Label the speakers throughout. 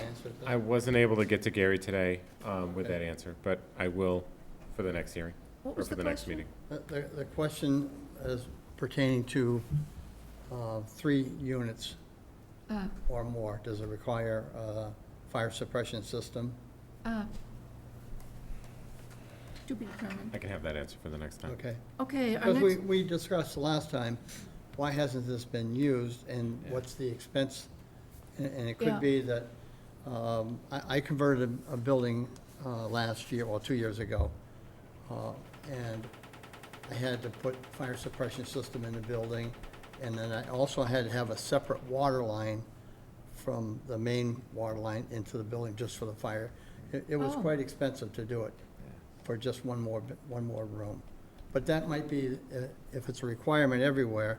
Speaker 1: answer to that?
Speaker 2: I wasn't able to get to Gary today um, with that answer, but I will for the next hearing,
Speaker 3: What
Speaker 2: or
Speaker 3: was
Speaker 2: for
Speaker 3: the
Speaker 2: the next
Speaker 3: question?
Speaker 2: meeting.
Speaker 4: The, the- the question is pertaining to uh, three units
Speaker 3: Uh,
Speaker 4: or more. Does it require a fire suppression system?
Speaker 3: uh, To be determined.
Speaker 2: I can have that answer for the next time.
Speaker 4: Okay.
Speaker 3: Okay, our
Speaker 4: Because we,
Speaker 3: next,
Speaker 4: we discussed last time, why hasn't this been used and what's the expense? And- And it
Speaker 3: Yeah.
Speaker 4: could be that, um, I, I converted a building uh, last year, or two years ago. uh, And I had to put fire suppression system in the building. And then I also had to have a separate water line from the main water line into the building just for the fire. It, it was
Speaker 3: Oh.
Speaker 4: quite expensive to do it for just one more, b- one more room. But that might be, uh, if it's a requirement everywhere,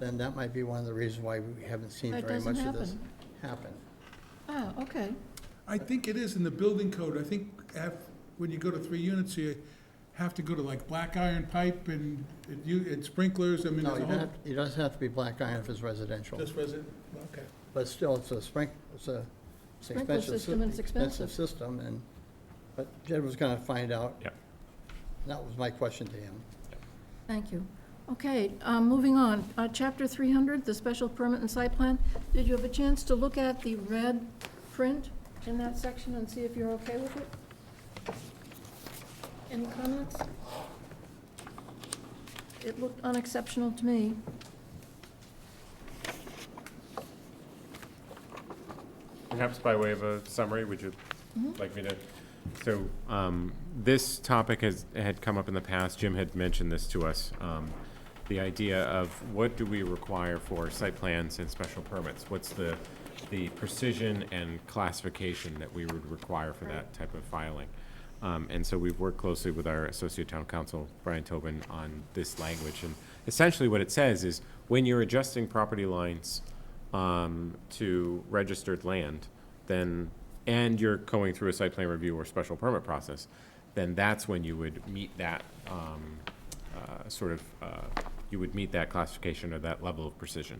Speaker 4: then that might be one of the reasons why we haven't seen
Speaker 3: That
Speaker 4: very
Speaker 3: doesn't
Speaker 4: much of this
Speaker 3: happen.
Speaker 4: happen.
Speaker 3: ah, okay,
Speaker 5: I think it is in the building code. I think af- when you go to three units, you have to go to like black iron pipe and, and you- and sprinklers, I mean,
Speaker 4: No,
Speaker 5: there's
Speaker 4: you
Speaker 5: a
Speaker 4: don't
Speaker 5: whole.
Speaker 4: have, it doesn't have to be black iron if it's residential,
Speaker 5: Just resident, okay.
Speaker 4: but still, it's a sprink, it's a, it's an
Speaker 3: Sprinkler
Speaker 4: expensive.
Speaker 3: system and it's
Speaker 4: Expensive system, and, but Jed was gonna find out.
Speaker 2: Yep.
Speaker 4: That was my question to him.
Speaker 3: thank you. Okay, um, moving on, Uh, Chapter 300, the special permit and site plan. Did you have a chance to look at the red print in that section and see if you're okay with it? Any comments? It looked unexceptional to me.
Speaker 2: Perhaps by way of a summary, would you like me to? So, um, this topic has, had come up in the past, Jim had mentioned this to us. um, The idea of what do we require for site plans and special permits? What's the, the precision and classification that we would require for that type of filing? Um, and so we've worked closely with our associate town council, Brian Tobin, on this language. And essentially what it says is, when you're adjusting property lines, um, to registered land, then, and you're going through a site plan review or special permit process, then that's when you would meet that, um, uh, sort of, uh, you would meet that classification or that level of precision.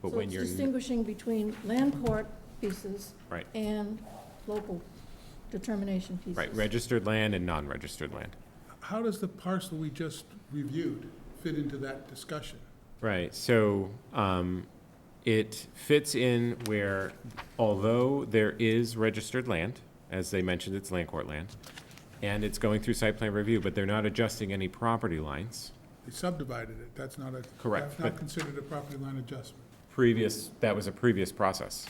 Speaker 2: But
Speaker 3: So
Speaker 2: when
Speaker 3: it's
Speaker 2: you're, n-
Speaker 3: distinguishing between land court pieces
Speaker 2: right,
Speaker 3: and local determination pieces.
Speaker 2: right, registered land and non-registered land.
Speaker 5: How does the parcel we just reviewed fit into that discussion?
Speaker 2: Right, so um, it fits in where, although there is registered land, as they mentioned, it's land court land, and it's going through site plan review, but they're not adjusting any property lines.
Speaker 5: They subdivided it, that's not a.
Speaker 2: Correct,
Speaker 5: That's not
Speaker 2: but-
Speaker 5: considered a property line adjustment.
Speaker 2: Previous, that was a previous process.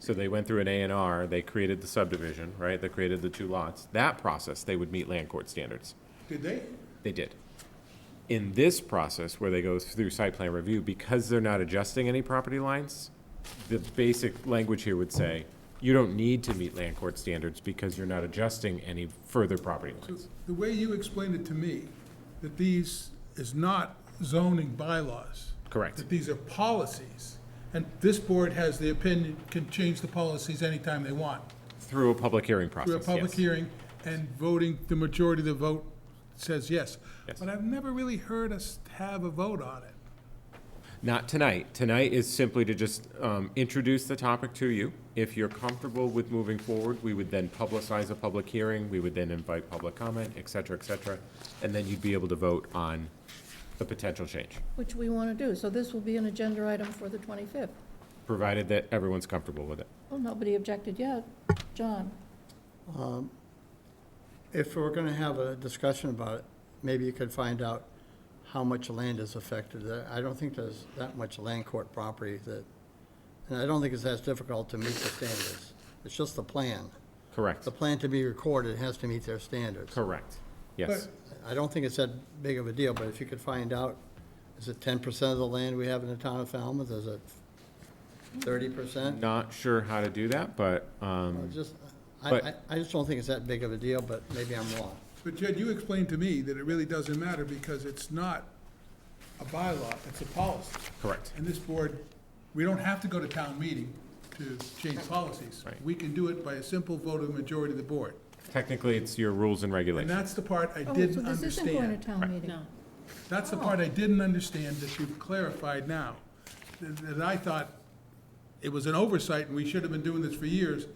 Speaker 2: So they went through an A and R, they created the subdivision, right? They created the two lots. That process, they would meet land court standards.
Speaker 5: Did they?
Speaker 2: They did. In this process, where they go through site plan review, because they're not adjusting any property lines, the basic language here would say, you don't need to meet land court standards because you're not adjusting any further property
Speaker 5: So
Speaker 2: lines.
Speaker 5: The way you explained it to me, that these is not zoning bylaws.
Speaker 2: Correct.
Speaker 5: That these are policies, and this board has the opinion, can change the policies anytime they want.
Speaker 2: Through a public hearing
Speaker 5: Through a
Speaker 2: process,
Speaker 5: public
Speaker 2: yes.
Speaker 5: hearing and voting, the majority of the vote says yes.
Speaker 2: Yes.
Speaker 5: But I've never really heard us have a vote on it.
Speaker 2: Not tonight. Tonight is simply to just um, introduce the topic to you. If you're comfortable with moving forward, we would then publicize a public hearing, we would then invite public comment, et cetera, et cetera, and then you'd be able to vote on the potential change.
Speaker 3: Which we want to do, so this will be an agenda item for the 25th.
Speaker 2: provided that everyone's comfortable with it.
Speaker 3: Well, nobody objected yet. John?
Speaker 4: If we're gonna have a discussion about it, maybe you could find out how much land is affected. There- I don't think there's that much land court property that, and I don't think it's as difficult to meet the standards. It's just the plan.
Speaker 2: Correct.
Speaker 4: The plan to be recorded has to meet their standards.
Speaker 2: Correct. Yes.
Speaker 4: I don't think it's that big of a deal, but if you could find out, is it ten percent of the land we have in the town of Falmouth? Is it thirty percent?
Speaker 2: Not sure how to do that, but, um,
Speaker 4: Just, I,
Speaker 2: But-
Speaker 4: I, I just don't think it's that big of a deal, but maybe I'm wrong.
Speaker 5: But Jed, you explained to me that it really doesn't matter because it's not a bylaw, it's a policy.
Speaker 2: correct.
Speaker 5: And this board, we don't have to go to town meeting to change policies.
Speaker 2: Right.
Speaker 5: We can do it by a simple vote of the majority of the board.
Speaker 2: Technically, it's your rules and
Speaker 5: And
Speaker 2: regulations.
Speaker 5: that's the part I
Speaker 3: Oh,
Speaker 5: didn't
Speaker 3: So this isn't going to
Speaker 5: understand.
Speaker 3: town meeting? No.
Speaker 5: That's the part I didn't understand that you've clarified now. That that I thought it was an oversight and we should have been doing this for years,